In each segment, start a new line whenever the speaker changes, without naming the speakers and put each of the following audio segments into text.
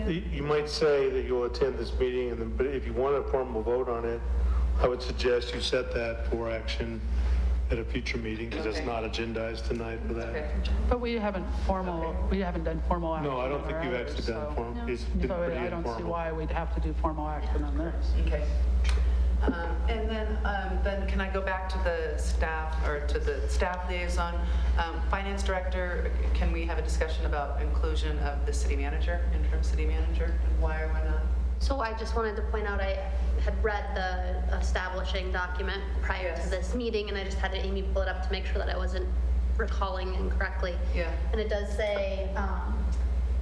you might say that you'll attend this meeting, and then, but if you want a formal vote on it, I would suggest you set that for action at a future meeting, because it's
Okay.
not agendized tonight for that.
Okay.
But we haven't formal, we haven't done formal action.
No, I don't
on
think
our
you've
others,
actually done
so-
formal, it's been
So
pretty
I don't see
informal.
why we'd have to do formal action on this.
Okay. Um, And then, um, then can I go back to the staff, or to the staff liaison? Um, Finance director, can we have a discussion about inclusion of the city manager, interim city manager, and why or why not?
So I just wanted to point out, I had read the establishing document prior
Yes.
to this meeting, and I just had Amy pull it up to make sure that I wasn't recalling incorrectly.
Yeah.
And it does say, um,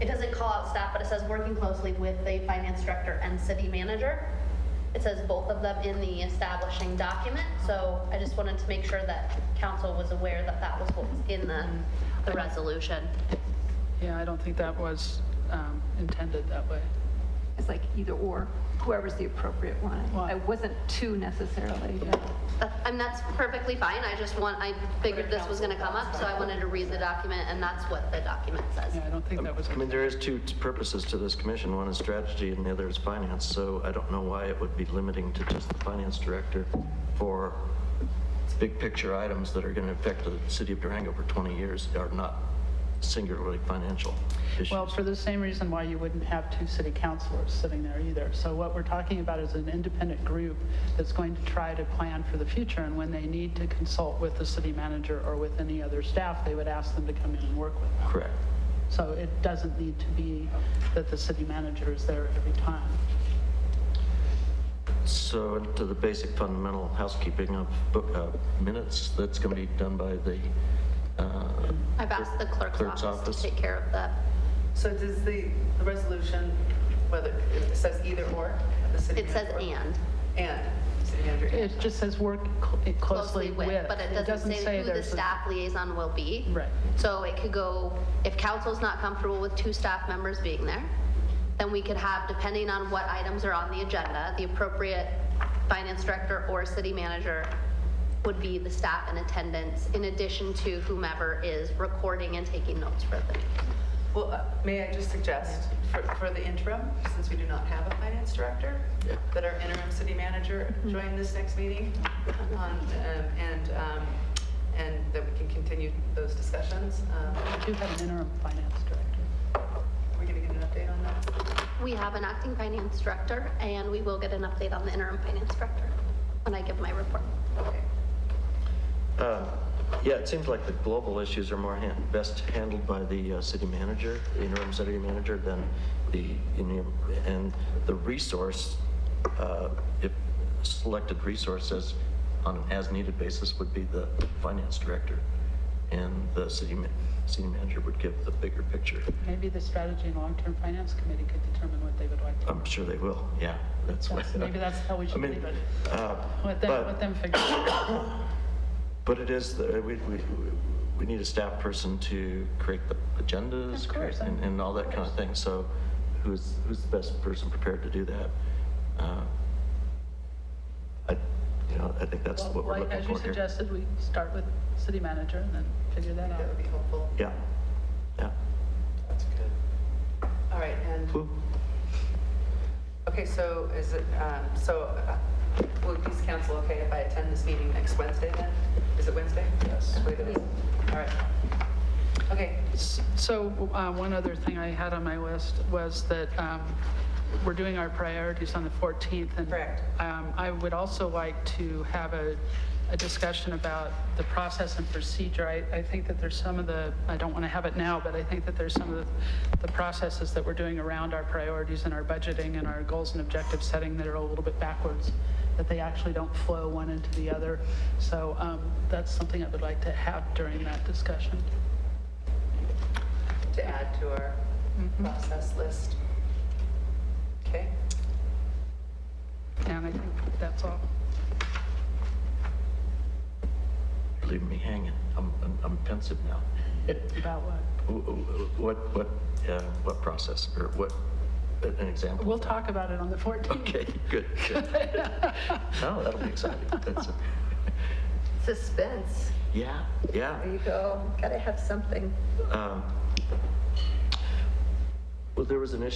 it doesn't call out staff, but it says working closely with the finance director and city manager. It says both of them in the establishing document, so I just wanted to make sure that council was aware that that was what was in the,
Mm-hmm.
the resolution.
Yeah, I don't think that was um, intended that way.
It's like either or, whoever's the appropriate one.
Well-
I wasn't two necessarily.
That- Uh, And that's perfectly fine, I just want, I figured this was gonna come up, so I wanted to read the document, and that's what the document says.
Yeah, I don't think that was,
I mean, there is two purposes to this commission. One is strategy and the other is finance. So I don't know why it would be limiting to just the finance director for big picture items that are going to affect the city of Durango for 20 years are not singularly financial issues.
well, for the same reason why you wouldn't have two city councilors sitting there either. So what we're talking about is an independent group that's going to try to plan for the future, and when they need to consult with the city manager or with any other staff, they would ask them to come in and work with them.
Correct.
So it doesn't need to be that the city manager is there every time.
So to the basic fundamental housekeeping of book, uh, minutes, that's going to be done by the, uh,
I've asked the clerk's
Clerk's
office
office.
to take care of that.
So does the, the resolution, whether, it says either or, the city?
It says
manager or-
and.
And, city manager. and.
It just says work cl- closely with.
But it doesn't say who the
there's a-
staff liaison will be.
Right.
So it could go, if council's not comfortable with two staff members being there, then we could have, depending on what items are on the agenda, the appropriate finance director or city manager would be the staff in attendance, in addition to whomever is recording and taking notes for the meeting.
Well, uh, may I just suggest, for, for the interim, since we do not have a finance director,
Yeah.
that our interim city manager join this next meeting, um, um, and, um, and that we can continue those discussions. Um,
We do have an interim finance director.
Are we going to get an update on that?
We have an acting finance director, and we will get an update on the interim finance director when I give my report.
Okay.
Uh, Yeah, it seems like the global issues are more han- best handled by the uh, city manager, the interim city manager, than the, interim- and the resource, uh, if selected resources on an as-needed basis would be the finance director. And the city, ma- city manager would give the bigger picture.
Maybe the strategy and long-term finance committee could determine what they would like. to
I'm sure they will, yeah, Um, that's what.
That's- maybe that's how we
I
should
mean,
leave it.
uh,
Let them,
but-
let them figure it out.
But it is, the- we, we, we need a staff person to create the agendas.
Of course,
create- And, and all that kind of thing, so who's, who's the best person prepared to do that? Uh, I, you know, I think that's what we're
Like,
looking
as you
for here.
suggested, we start with city manager and then figure that out.
That would be helpful.
Yeah, yeah.
That's good. All right, and,
Cool.
okay, so is it, um, so uh, will it please council okay if I attend this meeting next Wednesday then? Is it Wednesday? Yes. All right. Okay,
S- So uh, one other thing I had on my list was that um, we're doing our priorities on the 14th. and
Correct.
um, I would also like to have a, a discussion about the process and procedure. I, I think that there's some of the, I don't want to have it now, but I think that there's some of the, the processes that we're doing around our priorities and our budgeting and our goals and objective setting that are a little bit backwards, that they actually don't flow one into the other. So um, that's something I would like to have during that discussion.
to add to our process list. Okay,
And I think that's all.
You're Leaving me hanging. I'm, I'm- I'm pensive now.
About what?
Wh- wh- What, what, uh, what process or what, an example?
We'll talk about it on the 14th.
Okay, good, good. No, that'll be exciting. That's,
Suspense.
yeah, yeah.
There you go. Gotta have something.
Um, Well, there was an issue